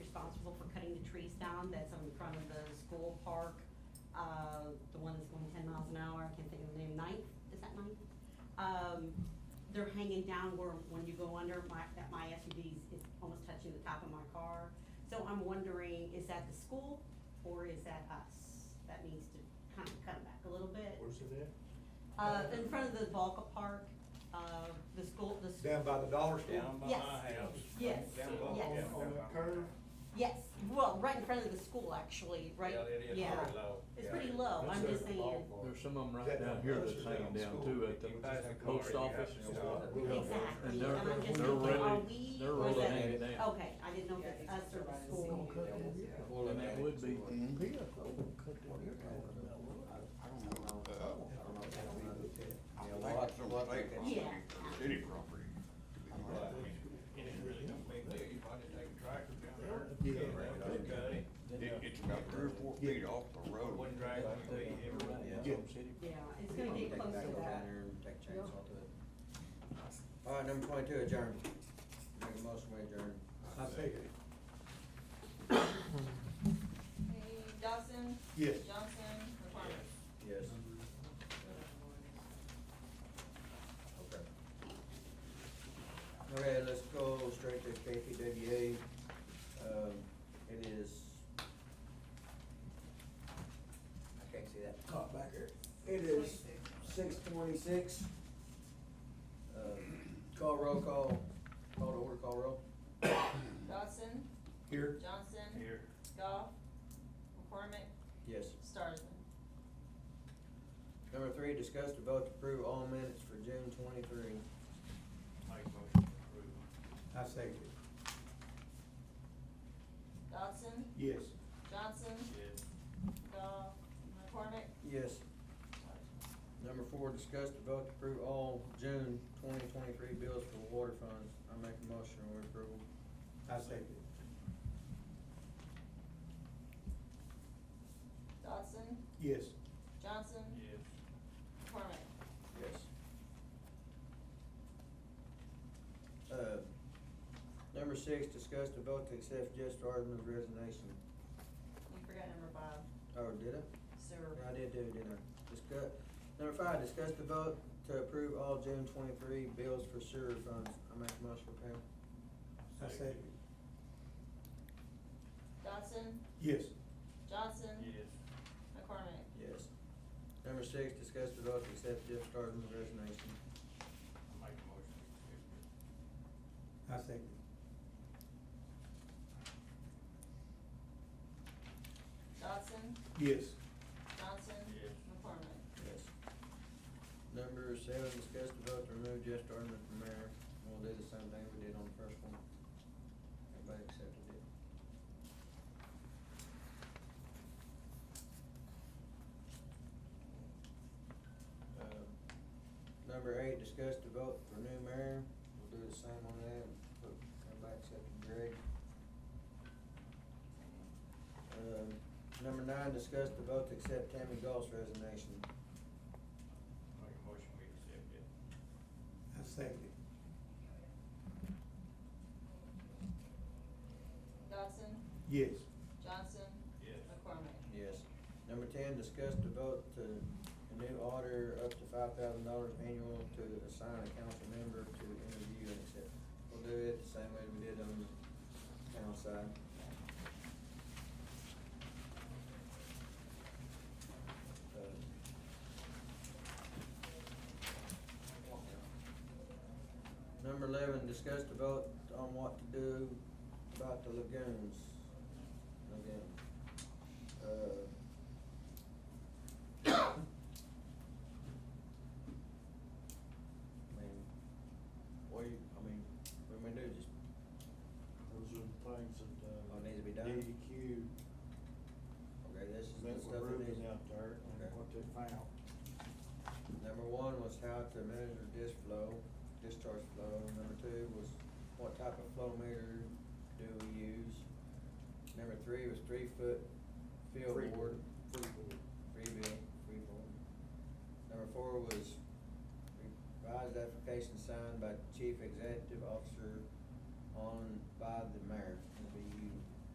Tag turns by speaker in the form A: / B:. A: trees down that's on the front of the school park, uh, the one that's going ten miles an hour, I can't think of the name, Ninth, is that Ninth? Um, they're hanging down where, when you go under, my, that my SUV is almost touching the top of my car. So I'm wondering, is that the school or is that us? That needs to kind of come back a little bit.
B: Where's it at?
A: Uh, in front of the Volca Park, uh, the school, the. s-
C: Down by the dollar store.
D: Down by my
A: Yes.
D: house.
A: Yes.
D: Down by-
A: Yes.
D: yeah,
B: On
D: down
B: that
D: by my
B: curve?
D: house.
A: Yes, well, right in front of the school, actually, right?
D: Yeah, it is
A: Yeah.
D: pretty low.
A: It's
D: Yeah.
A: pretty low, I'm
B: That's
A: just
B: a
A: saying,
B: ballpark.
E: There's some of them
C: That-
E: right down here
C: that's
E: that's
C: down
E: hanging down
C: school.
E: too at the
D: If you pass a car,
E: post
D: you have
E: office.
D: to
E: and
D: stop.
E: stuff.
B: Really?
A: exactly,
E: And
A: and
E: they're-
A: I'm just
E: they're
A: thinking, are
E: really-
A: we,
E: they're
A: or is
E: really
A: that-
E: hanging down.
A: okay, I didn't know if it's us or the school.
C: Well,
E: And that would be,
C: Mm-hmm.
F: I don't know. I don't know if that'll be
G: I think it's
F: good.
G: on state property,
A: Yeah.
G: or city property.
D: Right. And it really don't make clear, you might just take a tractor down there.
B: Yeah.
D: get around it, cut it,
G: It, it's about three or four feet off the road.
D: One drag, one beat, everybody.
E: yeah, some city.
A: Yeah, it's gonna get close to that.
F: Take chainsaw to it. All right, number twenty-two, adjourn. Make a motion, we adjourn.
C: I take it.
H: Dawson?
C: Yes.
H: Johnson? McCormick?
F: Yes. Okay. All right, let's go straight to KPWA. Um, it is. I can't see that.
C: Oh, back here.
F: It is six twenty-six. Um, Call roll, call, call to order, call roll.
H: Dawson?
C: Here.
H: Johnson?
D: Here.
H: Goff? McCormick?
F: Yes.
H: Starsman?
F: Number three, discuss the vote to approve all minutes for June twenty-three.
D: Make motion to approve.
C: I take it.
H: Dawson?
C: Yes.
H: Johnson?
D: Yes.
H: Goff? McCormick?
F: Yes. Number four, discuss the vote to approve all June twenty twenty-three bills for water funds. I make a motion we approve.
C: I take it.
H: Dawson?
C: Yes.
H: Johnson?
D: Yes.
H: McCormick?
F: Yes. Uh, number six, discuss the vote to accept Jess Ardman's resignation.
H: You forgot number five,
F: Oh, did I?
H: sewer.
F: Yeah, I did do, didn't I? Discuss, number five, discuss the vote to approve all June twenty-three bills for sewer funds. I make a motion to pay.
C: I take it.
H: Dawson?
C: Yes.
H: Johnson?
D: Yes.
H: McCormick?
F: Yes. Number six, discuss the vote to accept Jeff Starzman's resignation.
D: I Make motion to
C: I take it.
H: Dawson?
C: Yes.
H: Johnson?
D: Yes.
H: McCormick?
F: Yes. Number seven, discuss the vote to remove Jeff Starzman from mayor. We'll do the same thing we did on the first one. Everybody accepted it. Um, Number eight, discuss the vote for new mayor. We'll do the same on that. Everybody accepted Greg. Um, Number nine, discuss the vote to accept Tammy Gall's resignation.
D: approve. Make a motion we accept it.
C: I take it.
H: Dawson?
C: Yes.
H: Johnson?
D: Yes.
H: McCormick?
F: Yes. Number ten, discuss the vote to a new auditor up to five thousand dollars annual to assign a council member to interview and accept. We'll do it the same way we did on the town side. Uh, Number eleven, discuss the vote on what to do about the lagoons. Lagoon. Uh, I mean, what do you, I mean, what do we do, just,
B: Those are the things that, uh.
F: Oh, it needs to be done?
B: DEQ
F: okay, this is
B: met with
F: the stuff that needs.
B: Ruben out there
F: Okay.
B: and what they found.
F: Number one was how to measure dish flow, discharge flow, number two was what type of flow meter do we use? Number three was three foot field
B: Free-
F: board,
B: Freeboard.
F: free bill, free board. Number four was revised application signed by chief executive officer on, by the mayor.